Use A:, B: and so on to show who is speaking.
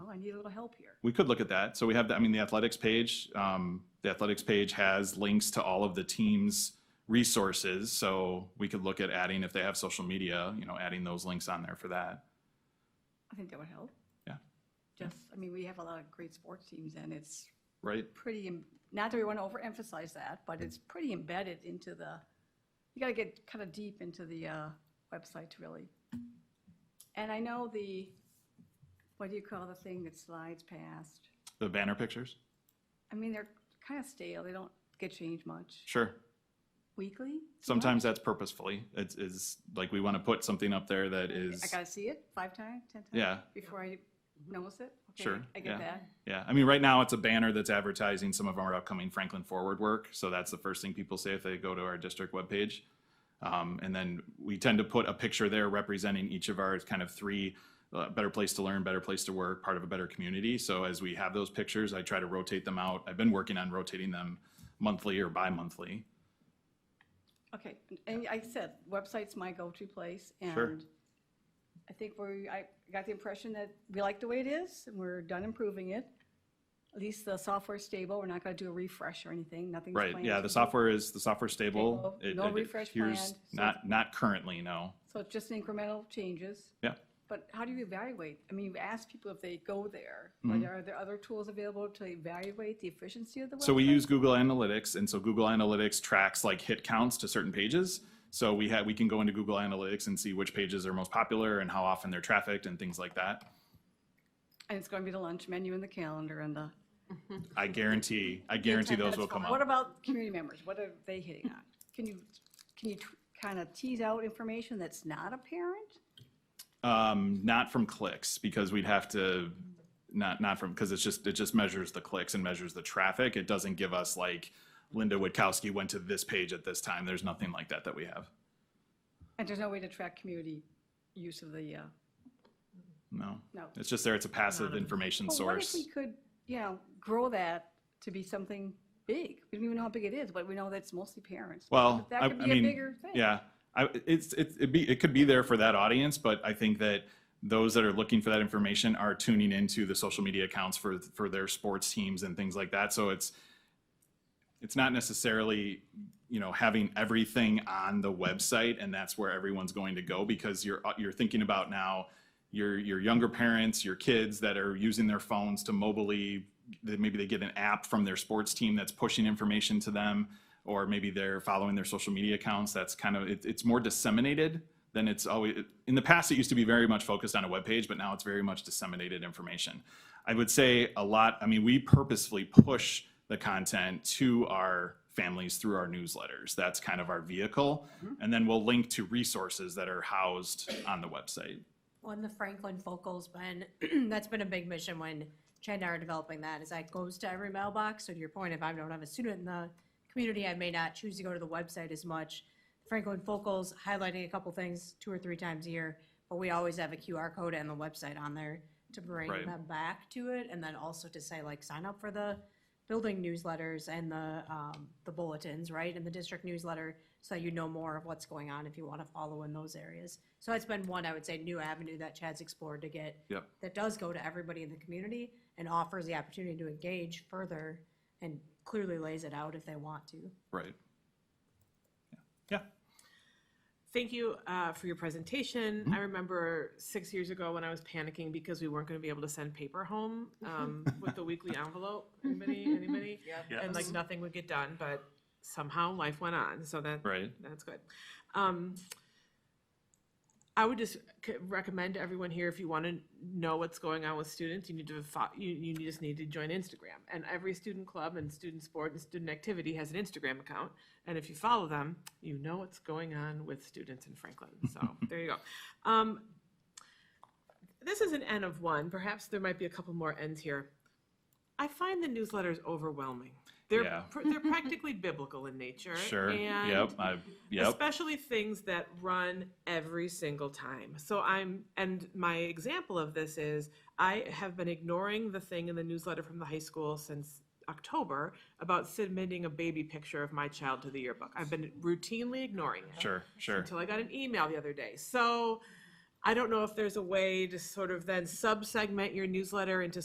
A: Oh, need a little help here.
B: We could look at that. So we have, the- I mean, the athletics page, um, the athletics page has links to all of the team's resources. So we could look at adding, if they have social media, you know, adding those links on there for that.
A: I think that would help.
B: Yeah.
A: Just, I mean, we have a lot of great sports teams and it's
B: Right?
A: pretty, em- not that we want to overemphasize that, but it's pretty embedded into the, you got to get kind of deep into the uh, website to really. And I know the, what do you call the thing that slides past?
B: The banner pictures?
A: I mean, they're kind of stale. They don't get changed much.
B: Sure.
A: Weekly?
B: Sometimes that's purposefully. It's, is like, we want to put something up there that
A: I
B: is,
A: got to see it five times, 10 times?
B: Yeah.
A: Before I notice it? Okay,
B: Sure,
A: I get
B: yeah.
A: that.
B: yeah. I mean, right now it's a banner that's advertising some of our upcoming Franklin Forward work. So that's the first thing people say if they go to our district webpage. Um, and then we tend to put a picture there representing each of our kind of three uh, better place to learn, better place to work, part of a better community. So as we have those pictures, I try to rotate them out. I've been working on rotating them monthly or bi-monthly.
A: Okay, and- and I said, website's my go-to place,
B: Sure.
A: and I think we, I got the impression that we like the way it is, and we're done improving it. At least the software's stable, we're not gonna do a refresh or anything, nothing's
B: Right,
A: planned.
B: yeah, the software is, the software's stable.
A: Stable,
B: It-
A: no
B: it
A: refresh planned,
B: appears
A: so it's-
B: Not, not currently, no.
A: So it's just incremental changes,
B: Yeah,
A: but how do you evaluate? I mean, you ask people if they go there,
B: Mm-hmm.
A: but are there other tools available to evaluate the efficiency of the website?
B: so we use Google Analytics, and so Google Analytics tracks like hit counts to certain pages. So we have, we can go into Google Analytics and see which pages are most popular and how often they're trafficked and things like that.
A: And it's gonna be the lunch menu and the calendar and the.
B: I guarantee, I guarantee those will come
A: What
B: up.
A: about community members? What are they hitting on? Can you, can you kind of tease out information that's not apparent?
B: Um, not from clicks, because we'd have to, not, not from, because it's just, it just measures the clicks and measures the traffic. It doesn't give us like Linda Witkowski went to this page at this time. There's nothing like that that we have.
A: And there's no way to track community use of the, uh,
B: No.
A: No.
B: It's just there. It's a passive information
A: but what if
B: source.
A: we could, you know, grow that to be something big? We don't even know how big it is, but we know that it's mostly parents.
B: Well,
A: That
B: I,
A: could
B: I
A: be a
B: mean,
A: bigger thing.
B: yeah, I, it's, it's, it'd be, it could be there for that audience, but I think that those that are looking for that information are tuning into the social media accounts for, for their sports teams and things like that. So it's, it's not necessarily, you know, having everything on the website and that's where everyone's going to go because you're, you're thinking about now your, your younger parents, your kids that are using their phones to mobily, that maybe they get an app from their sports team that's pushing information to them, or maybe they're following their social media accounts. That's kind of, it, it's more disseminated than it's always, in the past, it used to be very much focused on a webpage, but now it's very much disseminated information. I would say a lot, I mean, we purposefully push the content to our families through our newsletters. That's kind of our vehicle. And then we'll link to resources that are housed on the website.
C: On the Franklin Focal's been, that's been a big mission when Chad and I are developing that, is that goes to every mailbox. So to your point, if I don't have a student in the community, I may not choose to go to the website as much. Franklin Focal's highlighting a couple things two or three times a year, but we always have a QR code and the website on there to bring
B: Right.
C: them back to it, and then also to say, like, sign up for the building newsletters and the, um, the bulletins, right, and the district newsletter, so that you know more of what's going on if you want to follow in those areas. So that's been one, I would say, new avenue that Chad's explored to get.
B: Yep.
C: That does go to everybody in the community and offers the opportunity to engage further and clearly lays it out if they want to.
B: Right. Yeah.
D: Thank you uh, for your presentation. I remember six years ago when I was panicking because we weren't going to be able to send paper home um, with the weekly envelope. Anybody? Anybody?
B: Yeah.
D: And like nothing would get done, but somehow life went on. So that
B: Right.
D: that's good. Um, I would just c- recommend to everyone here if you want to know what's going on with students, you need to fo- you, you just need to join Instagram. And every student club and student sport and student activity has an Instagram account. And if you follow them, you know what's going on with students in Franklin. So there you go. Um, this is an N of one. Perhaps there might be a couple more N's here. I find the newsletters overwhelming. They're
B: Yeah.
D: pr- they're practically biblical in nature.
B: Sure.
D: And
B: Yep. I, yep.
D: Especially things that run every single time. So I'm, and my example of this is I have been ignoring the thing in the newsletter from the high school since October about submitting a baby picture of my child to the yearbook. I've been routinely ignoring it
B: Sure. Sure.
D: until I got an email the other day. So I don't know if there's a way to sort of then sub segment your newsletter into